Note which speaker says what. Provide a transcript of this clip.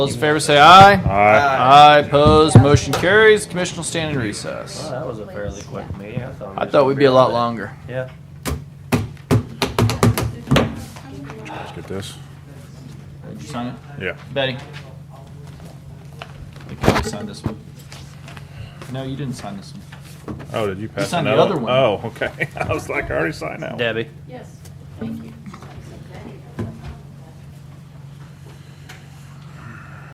Speaker 1: Those in favor say aye.
Speaker 2: Aye.
Speaker 1: Aye, opposed, motion carries. Commission will stand in recess.
Speaker 3: Well, that was a fairly quick meeting. I thought. we
Speaker 1: I thought
Speaker 3: was gonna
Speaker 1: we'd be a lot
Speaker 3: all day.
Speaker 1: longer.
Speaker 3: Yeah.
Speaker 2: Let's get this.
Speaker 1: Did you sign it?
Speaker 2: Yeah.
Speaker 1: Betty? I think you signed this one. No, you didn't sign this one.
Speaker 2: Oh, did you pass
Speaker 1: signed the
Speaker 2: another
Speaker 1: other one.
Speaker 2: Oh, okay. I was like, I already signed that one.
Speaker 3: Debbie.
Speaker 4: Yes.